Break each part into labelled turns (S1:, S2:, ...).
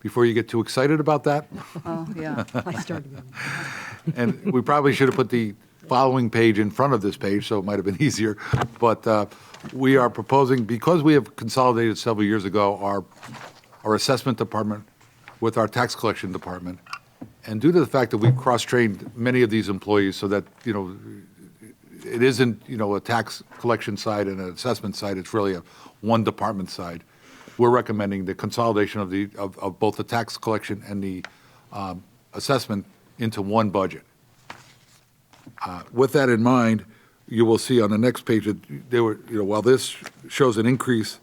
S1: before you get too excited about that.
S2: Oh, yeah.
S3: I started getting
S1: And we probably should have put the following page in front of this page, so it might have been easier. But uh, we are proposing, because we have consolidated several years ago, our, our assessment department with our tax collection department. And due to the fact that we've cross-trained many of these employees so that, you know, it isn't, you know, a tax collection side and an assessment side, it's really a one department side. We're recommending the consolidation of the, of, of both the tax collection and the um, assessment into one budget. Uh, With that in mind, you will see on the next page that there were, you know, while this shows an increase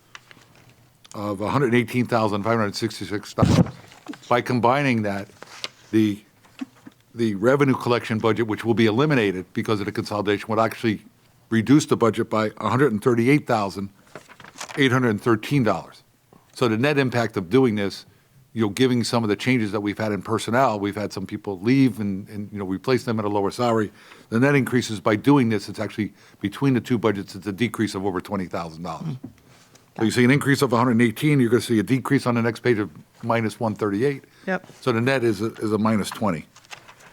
S1: of $118,566, by combining that, the the revenue collection budget, which will be eliminated because of the consolidation, would actually reduce the budget by $138,813. So the net impact of doing this, you know, giving some of the changes that we've had in personnel, we've had some people leave and, and, you know, replace them at a lower salary. The net increases by doing this, it's actually, between the two budgets, it's a decrease of over $20,000. So you see an increase of 118, you're going to see a decrease on the next page of minus 138.
S2: Yep.
S1: So the net is, a- is a minus 20.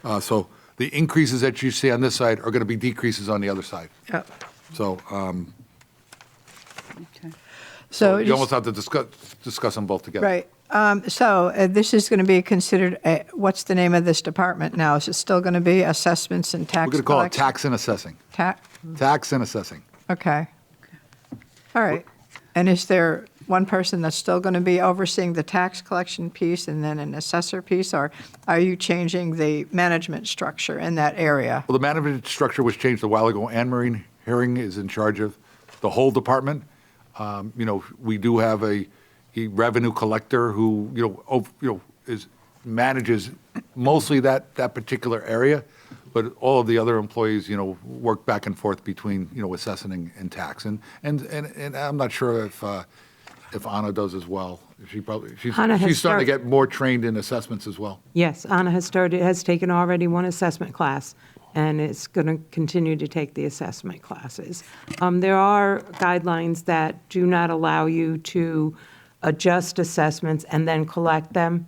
S1: Uh, So the increases that you see on this side are going to be decreases on the other side.
S2: Yep.
S1: So um,
S2: Okay.
S3: So,
S1: you almost have to discuss, discuss them both together.
S2: Right. Um, So uh, this is going to be considered, a- what's the name of this department now? Is it still going to be assessments and
S1: We're
S2: tax
S1: going to call it
S2: collection?
S1: tax and assessing.
S2: tax.
S1: Tax and assessing.
S2: Okay. All right. And is there one person that's still going to be overseeing the tax collection piece and then an assessor piece? Or are you changing the management structure in that area?
S1: Well, the management structure was changed a while ago. Anne Marie Herring is in charge of the whole department. Um, You know, we do have a a revenue collector who, you know, ov- you know, is, manages mostly that, that particular area, but all of the other employees, you know, work back and forth between, you know, assessing and tax. And, and, and and I'm not sure if, uh, if Anna does as well. She probably, she's
S4: Anna has
S1: she's starting to
S4: start-
S1: get more trained in assessments as well.
S4: Yes, Anna has started, has taken already one assessment class, and is going to continue to take the assessment classes. Um, There are guidelines that do not allow you to adjust assessments and then collect them.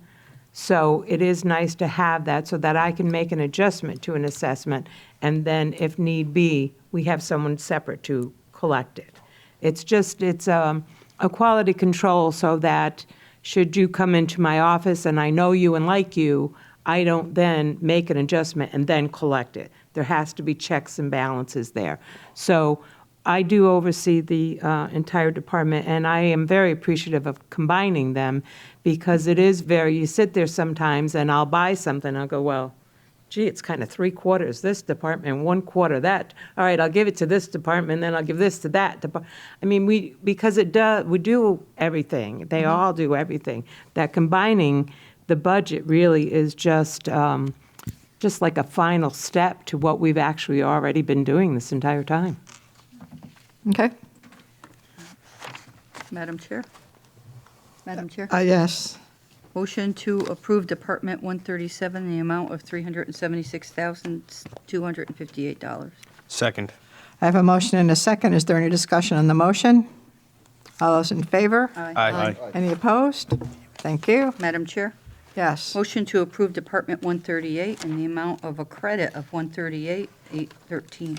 S4: So it is nice to have that, so that I can make an adjustment to an assessment, and then if need be, we have someone separate to collect it. It's just, it's um, a quality control so that should you come into my office and I know you and like you, I don't then make an adjustment and then collect it. There has to be checks and balances there. So I do oversee the uh, entire department, and I am very appreciative of combining them because it is very, you sit there sometimes and I'll buy something, I'll go, well, gee, it's kind of three quarters this department, one quarter that. All right, I'll give it to this department, then I'll give this to that depart. I mean, we, because it does, we do everything. They all do everything. That combining the budget really is just, um, just like a final step to what we've actually already been doing this entire time.
S2: Okay?
S3: Madam Chair? Madam Chair?
S2: Uh, Yes.
S3: Motion to approve Department 137, the amount of $376,258.
S5: Second.
S2: I have a motion and a second. Is there any discussion on the motion? All those in favor?
S5: Aye.
S2: Any opposed? Thank you.
S3: Madam Chair?
S2: Yes.
S3: Motion to approve Department 138 in the amount of a credit of 138,813.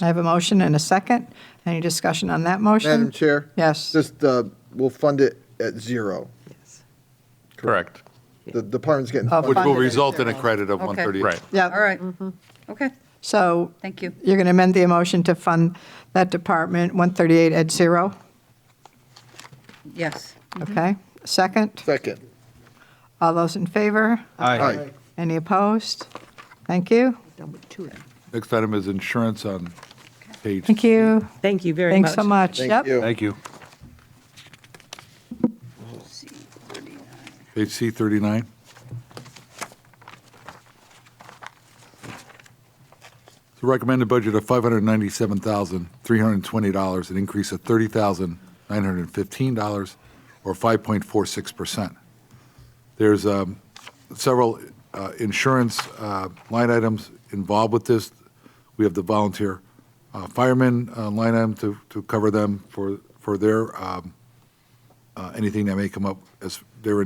S2: I have a motion and a second. Any discussion on that motion?
S6: Madam Chair?
S2: Yes.
S6: Just, uh, we'll fund it at zero.
S5: Correct.
S6: The department's getting
S2: Oh,
S1: Which
S6: funded.
S1: will
S2: Funded at
S1: result in a
S2: zero.
S1: credit of
S3: Okay.
S1: 138.
S5: Right.
S3: All
S2: Yep.
S3: right. Okay,
S2: So
S3: thank you.
S2: you're going to amend the motion to fund that department, 138 at zero,
S3: Yes.
S2: okay? Second,
S6: Second.
S2: all those in favor?
S6: Aye.
S2: Any opposed? Thank you.
S1: Next item is insurance on page
S2: Thank you.
S4: Thank you very much.
S2: Thanks so much.
S6: Thank
S2: Yep.
S6: you.
S5: Thank you.
S1: Page C 39. The recommended budget of $597,320, an increase of $30,915, or 5.46%. There's um, several uh, insurance uh, line items involved with this. We have the volunteer uh, fireman uh, line item to to cover them for for their um, uh, anything that may come up as